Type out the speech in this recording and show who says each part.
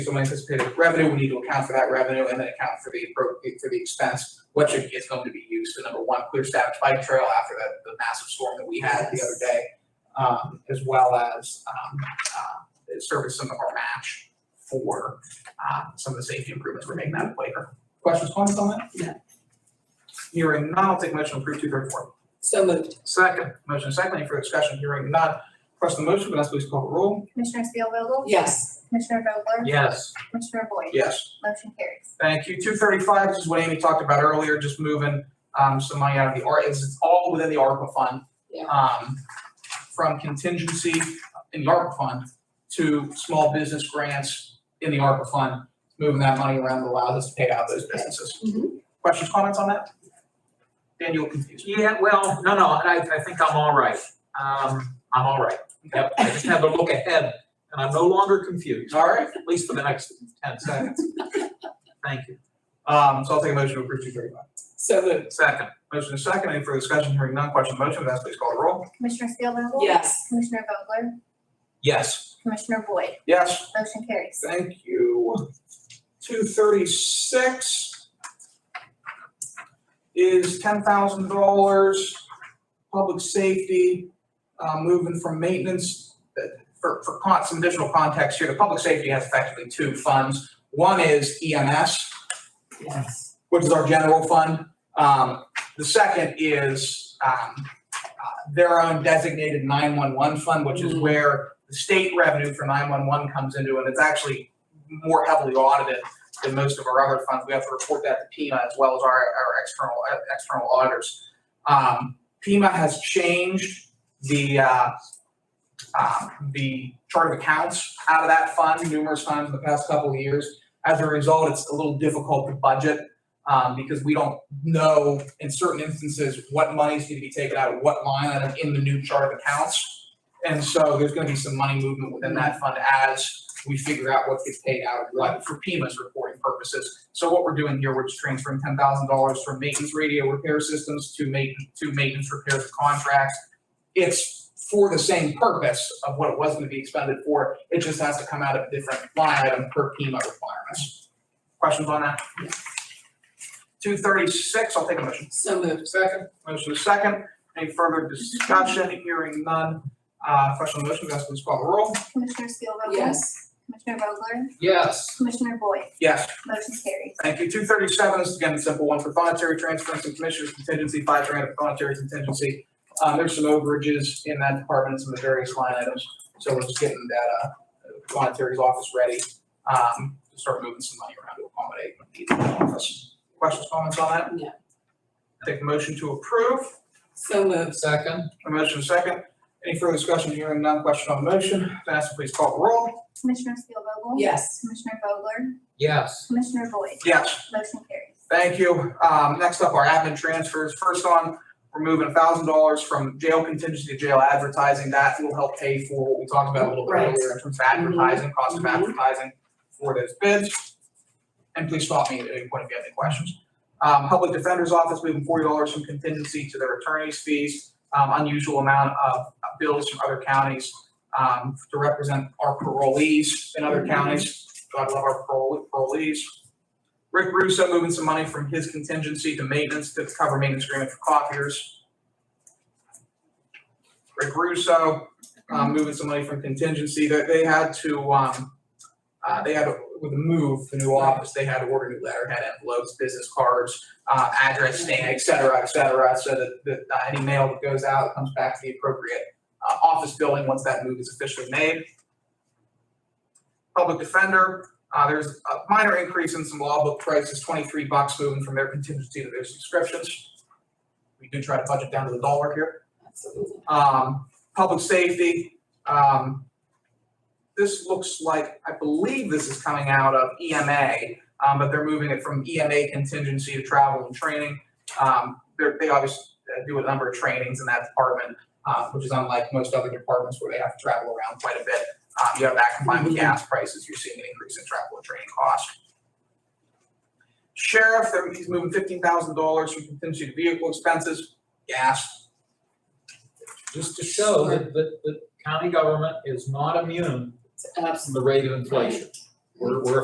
Speaker 1: some anticipated revenue, we need to account for that revenue and then account for the appropriate, for the expense, which it is going to be used for, number one, clear staff bike trail after the, the massive storm that we had the other day, um, as well as, um, uh, service some of our match for, um, some of the safety improvements we're making out of playground. Questions, comments on that?
Speaker 2: No.
Speaker 1: Hearing none, I'll take a motion to approve two thirty-four.
Speaker 2: So moved.
Speaker 1: Second, motion is second, any further discussion, hearing none, question on the motion, Vanessa please call the roll.
Speaker 3: Commissioner Spielvogel?
Speaker 2: Yes.
Speaker 3: Commissioner Vogler?
Speaker 1: Yes.
Speaker 3: Commissioner Boyd?
Speaker 1: Yes.
Speaker 3: Motion carries.
Speaker 1: Thank you. Two thirty-five, this is what Amy talked about earlier, just moving, um, some money out of the, ARPA. it's, it's all within the ARPA fund.
Speaker 2: Yeah.
Speaker 1: Um, from contingency in the ARPA fund to small business grants in the ARPA fund, moving that money around allows us to pay out those businesses.
Speaker 2: Mhm.
Speaker 1: Questions, comments on that? Daniel confused.
Speaker 4: Yeah, well, no, no, I, I think I'm all right. Um, I'm all right. Yep, I just had to look ahead and I'm no longer confused,
Speaker 1: All right,
Speaker 4: at least for the next ten seconds. Thank you.
Speaker 1: um, so I'll take a motion to approve two thirty-five.
Speaker 2: So moved.
Speaker 1: Second. Motion is second. Any further discussion? Hearing none. Question on the motion. Vanessa, please call the roll.
Speaker 3: Commissioner Spielvogel?
Speaker 2: Yes.
Speaker 3: Commissioner Vogler?
Speaker 4: Yes,
Speaker 3: Commissioner Boyd?
Speaker 1: Yes.
Speaker 3: Motion carries.
Speaker 1: Thank you. Two thirty-six is ten thousand dollars, public safety, uh, moving from maintenance. uh, For, for con, some additional context here, the public safety has effectively two funds. One is EMS,
Speaker 2: Yes.
Speaker 1: which is our general fund. Um, the second is, um, uh, their own designated nine-one-one fund, which is
Speaker 2: Mhm.
Speaker 1: where the state revenue for nine-one-one comes into, and it's actually more heavily audited than most of our other funds. We have to report that to PIMA as well as our, our external, uh, external auditors. Um, PIMA has changed the, uh, uh, the chart of accounts out of that fund numerous times in the past couple of years. As a result, it's a little difficult to budget um, because we don't know in certain instances what monies need to be taken out of what line item in the new chart of accounts. And so there's gonna be some money movement within that fund as we figure out what gets paid out, like for Pima's reporting purposes. So what we're doing here, we're just transferring ten thousand dollars from maintenance radio repair systems to maintenance, to maintenance repairs contracts. It's for the same purpose of what it was gonna be expended for, it just has to come out of a different line item per Pima requirements. Questions on that? Two thirty-six, I'll take a motion.
Speaker 2: So moved.
Speaker 1: Second. Motion is second. Any further discussion? Hearing none. Uh, question on the motion, Vanessa, please call the roll.
Speaker 3: Commissioner Spielvogel?
Speaker 2: Yes.
Speaker 3: Commissioner Vogler?
Speaker 4: yes,
Speaker 3: Commissioner Boyd?
Speaker 1: Yes.
Speaker 3: Motion carries.
Speaker 1: Thank you. Two thirty-seven, this is again a simple one for voluntary transference and commissioners contingency, five grand of voluntary contingency. Um, there's some overages in that department, some of the various line items, so we're just getting that, uh, voluntary's office ready, um, to start moving some money around to accommodate the office. Questions, comments on that?
Speaker 2: No.
Speaker 1: Take a motion to approve.
Speaker 2: So moved.
Speaker 4: second,
Speaker 1: A motion is second. Any further discussion? Hearing none, question on the motion. Vanessa, please call the roll.
Speaker 3: Commissioner Spielvogel?
Speaker 2: Yes.
Speaker 3: Commissioner Vogler?
Speaker 4: yes,
Speaker 3: Commissioner Boyd?
Speaker 1: Yes.
Speaker 3: Motion carries.
Speaker 1: Thank you. Um, next up, our admin transfers. First on, we're moving thousand dollars from jail contingency to jail advertising. That will help pay for what we talked about a little bit
Speaker 2: Right.
Speaker 1: earlier in terms of advertising, cost of
Speaker 2: Mhm.
Speaker 1: advertising for those bids. And please stop me at any point if you have any questions. Um, Public Defender's Office moving forty dollars from contingency to their attorney's fees. Um, unusual amount of bills from other counties, um, to represent our parolees in other counties. God love our parole- parolees. Rick Russo moving some money from his contingency to maintenance to cover maintenance agreement for copiers. Rick Russo, um, moving some money from contingency, they, they had to, um, uh, they had, to- with the move, the new office, they had to order new letterhead envelopes, business cards, uh, address stamp, et cetera, et cetera, so that, that uh, any mail that goes out comes back to the appropriate, uh, office building once that move is officially made. Public defender, uh, there's a minor increase in some law book prices, twenty-three bucks moving from their contingency to their subscriptions. We do try to budget down to the dollar here.
Speaker 2: Absolutely.
Speaker 1: Um, public safety, um, this looks like, I believe this is coming out of EMA, um, but they're moving it from EMA contingency to travel and training. Um, they're, they obviously uh, do a number of trainings in that department, uh, which is unlike most other departments where they have to travel around quite a bit. Um, you have that combined with gas prices, you're seeing an increase in travel and training costs. Sheriff, they're- he's moving fifteen thousand dollars from contingency to vehicle expenses, gas,
Speaker 4: just to show that, that, that county government is not immune from
Speaker 2: Absolutely.
Speaker 4: the rate of inflation. We're, we're